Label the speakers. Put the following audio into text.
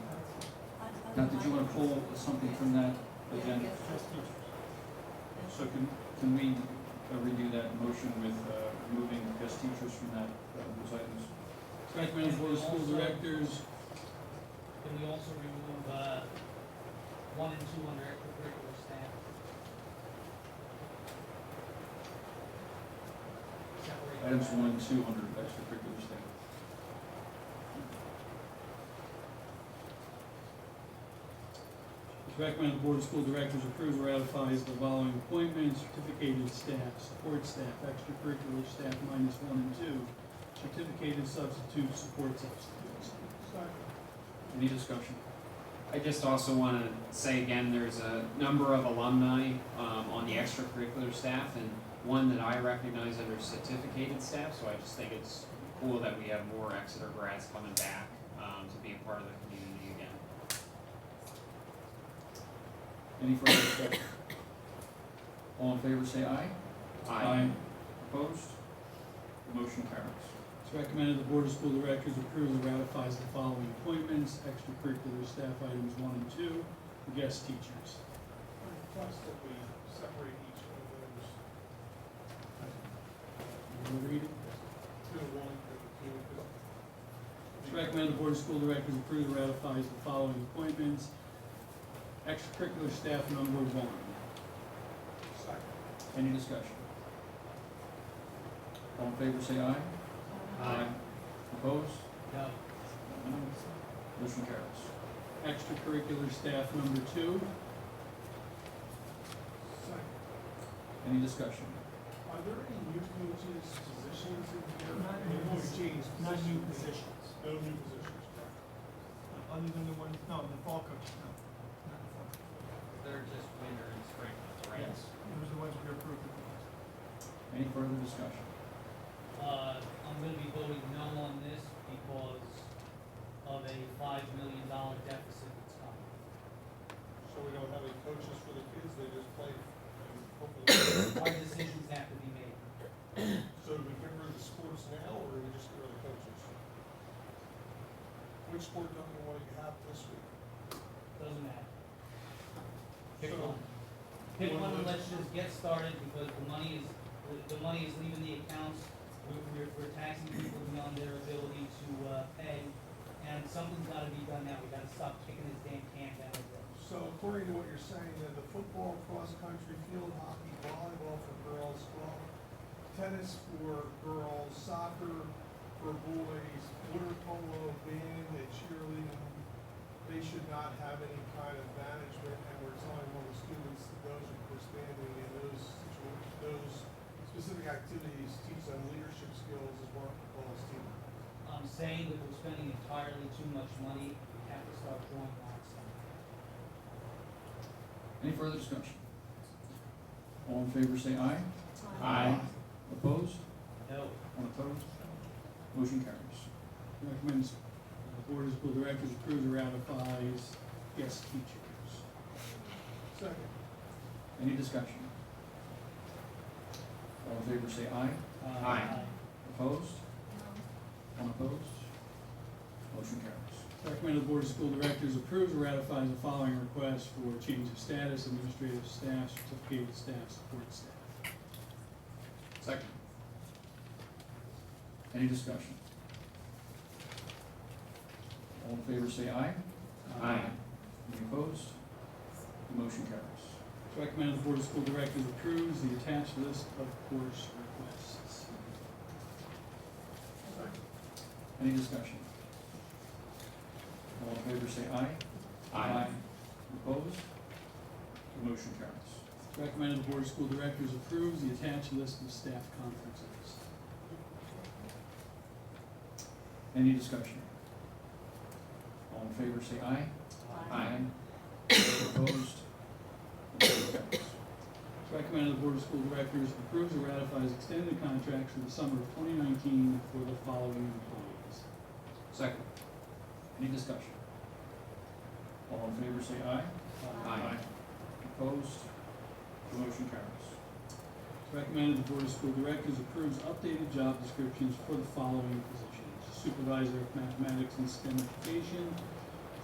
Speaker 1: Now, did you want to pull something from that agenda? So can, can we uh, redo that motion with uh, removing guest teachers from that, uh, those items?
Speaker 2: Recommend for the school
Speaker 3: Also-
Speaker 2: directors,
Speaker 3: Can we also remove, uh, one and two under extracurricular staff? Separate
Speaker 1: Items
Speaker 3: that.
Speaker 1: one and two under extracurricular staff.
Speaker 2: recommend the board of school directors approves or ratifies the following appointments, certificated staff, support staff, extracurricular staff minus one and two, certificated substitutes, support substitutes.
Speaker 1: Any discussion?
Speaker 4: I just also want to say again, there's a number of alumni um, on the extracurricular staff and one that I recognize under certificated staff, so I just think it's cool that we have more Exeter grads coming back um, to be a part of the community again.
Speaker 1: Any further discussion? All in favor, say aye.
Speaker 4: I
Speaker 1: Opposed? The motion carries.
Speaker 2: It's recommended the board of school directors approves or ratifies the following appointments, extracurricular staff items one and two, guest teachers.
Speaker 5: Request that we separate each one of those
Speaker 2: Will you read it?
Speaker 5: to one for the two.
Speaker 2: It's recommended the Board of School Directors approve and ratifies the following appointments. Extracurricular staff number one.
Speaker 5: Second.
Speaker 1: Any discussion? All in favor, say aye.
Speaker 4: Aye.
Speaker 1: Opposed?
Speaker 3: No,
Speaker 1: Motion carries.
Speaker 2: Extracurricular staff number two.
Speaker 5: Second.
Speaker 1: Any discussion?
Speaker 5: Are there any new coaches, positions in here? They've only changed
Speaker 6: Not new
Speaker 5: positions.
Speaker 6: positions, Uh,
Speaker 5: No new positions, correct?
Speaker 6: other than the ones, no, the fall coaches, no. not the fall coaches.
Speaker 4: They're just winter and spring, right?
Speaker 6: Yes, those are the ones we approved. at the last.
Speaker 1: Any further discussion?
Speaker 3: uh, I'm gonna be voting no on this because of a five million dollar deficit that's coming.
Speaker 5: So we don't have any coaches for the kids, they just play and hopefully.
Speaker 3: Our decisions have to be made.
Speaker 5: So do we get rid of the sports now, or do we just get rid of the coaches? Which sport don't you want to have this week?
Speaker 3: Doesn't matter. Pick
Speaker 5: So-
Speaker 3: one. Pick one and let's just get started because the money is, the, the money is leaving the accounts. We're, we're, we're taxing people beyond their ability to, uh, pay. And something's gotta be done now. We gotta stop kicking this damn can down the road.
Speaker 5: So according to what you're saying, then the football, cross-country, field hockey, volleyball for girls, well, tennis for girls, soccer for boys, water polo, band, and cheerleading, they should not have any kind of management, and we're telling all the students that those are participating in those situations, those specific activities teach them leadership skills as well as team.
Speaker 3: I'm saying that we're spending entirely too much money. We have to start drawing lines somewhere.
Speaker 1: Any further discussion? All in favor, say aye.
Speaker 4: Aye.
Speaker 1: Opposed?
Speaker 3: No,
Speaker 1: One opposed? Motion carries.
Speaker 2: Recommends uh, Board of School Directors approves or ratifies guest teachers.
Speaker 5: Second.
Speaker 1: Any discussion? All in favor, say aye.
Speaker 2: Uh,
Speaker 4: Aye.
Speaker 1: Opposed? One opposed? Motion carries.
Speaker 2: Recommended Board of School Directors approves or ratifies the following requests for change of status, administrative staff, certificated staff, support staff.
Speaker 1: Second. Any discussion? All in favor, say aye.
Speaker 2: Uh,
Speaker 4: Aye.
Speaker 1: Any opposed? The motion carries.
Speaker 2: It's recommended the Board of School Directors approves the attached list of course requests.
Speaker 1: Any discussion? All in favor, say aye.
Speaker 4: Aye.
Speaker 1: Opposed? The motion carries.
Speaker 2: It's recommended the Board of School Directors approves the attached list of staff conferences.
Speaker 1: Any discussion? All in favor, say aye.
Speaker 4: Aye.
Speaker 1: Opposed? The motion carries.
Speaker 2: It's recommended the Board of School Directors approves or ratifies extended contracts for the summer of 2019 for the following employees.
Speaker 4: Second.
Speaker 1: Any discussion? All in favor, say aye.
Speaker 2: Uh,
Speaker 4: Aye.
Speaker 1: Opposed? The motion carries.
Speaker 2: It's recommended the Board of School Directors approves updated job descriptions for the following positions. Supervisor of Mathematics and STEM Education,